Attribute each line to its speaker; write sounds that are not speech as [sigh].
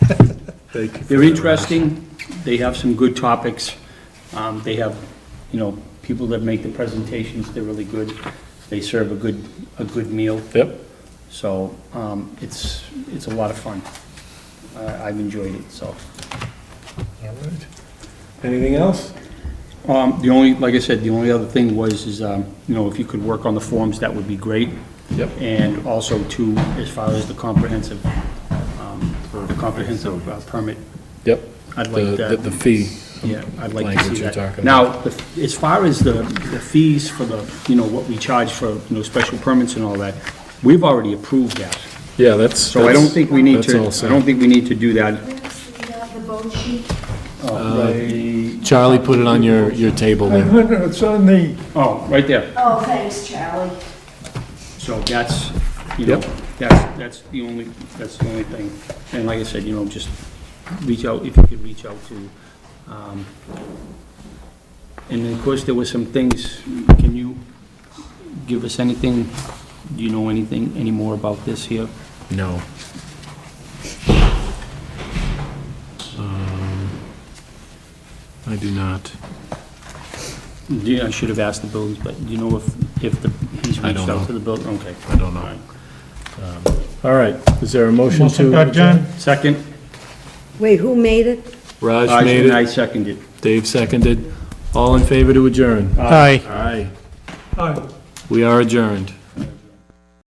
Speaker 1: Thank you. for
Speaker 2: They're
Speaker 1: that.
Speaker 2: interesting, they have some good topics, um, they have, you know, people that make the presentations, they're really good, they serve a good, a good meal,
Speaker 3: Yep.
Speaker 2: so, um, it's, it's a lot of fun. I, I've enjoyed it, so.
Speaker 1: All right. Anything else?
Speaker 2: Um, the only, like I said, the only other thing was, is, um, you know, if you could work on the forms, that would be great.
Speaker 3: Yep.
Speaker 2: And also too, as far as the comprehensive, um, the comprehensive uh, permit,
Speaker 3: Yep.
Speaker 2: I'd like
Speaker 3: The,
Speaker 2: that.
Speaker 3: the fee.
Speaker 2: Yeah, I'd like to
Speaker 3: Language
Speaker 2: see
Speaker 3: you're
Speaker 2: that.
Speaker 3: talking
Speaker 2: Now, the- as far as the, the fees for the, you know, what we charge for, you know, special permits and all that, we've already approved that.
Speaker 3: Yeah, that's.
Speaker 2: So I don't
Speaker 3: that's-
Speaker 2: think we need
Speaker 3: that's
Speaker 2: to,
Speaker 3: all
Speaker 2: I
Speaker 3: set.
Speaker 2: don't think we need to do that.
Speaker 4: Where's the, uh, the vote sheet?
Speaker 3: Charlie put it on your, your table
Speaker 1: I
Speaker 2: [laughs]
Speaker 3: there.
Speaker 1: wonder, it's on the,
Speaker 2: Oh, right there.
Speaker 4: Oh, thanks, Charlie.
Speaker 2: So that's, you know,
Speaker 3: Yep.
Speaker 2: that's, that's the only, that's the only thing. And like I said, you know, just reach out, if you could reach out to, um, and then, of course, there were some things, can you give us anything, do you know anything, any more about this here?
Speaker 3: No. Um, I do not.
Speaker 2: Yeah, I should have asked the buildings, but do you know if, if the, he's
Speaker 3: I
Speaker 2: reached
Speaker 3: don't
Speaker 2: out
Speaker 3: know.
Speaker 2: to the building? Okay.
Speaker 3: I don't
Speaker 2: All right.
Speaker 3: know. Um, All right, is there a motion to?
Speaker 1: motion by Jen,
Speaker 2: Second,
Speaker 5: Wait, who made it?
Speaker 3: Raj
Speaker 2: Raj
Speaker 3: made
Speaker 2: and I
Speaker 3: it,
Speaker 2: seconded.
Speaker 3: Dave seconded. All in favor to adjourn?
Speaker 1: aye.
Speaker 3: Aye.
Speaker 1: Aye.
Speaker 3: We are adjourned.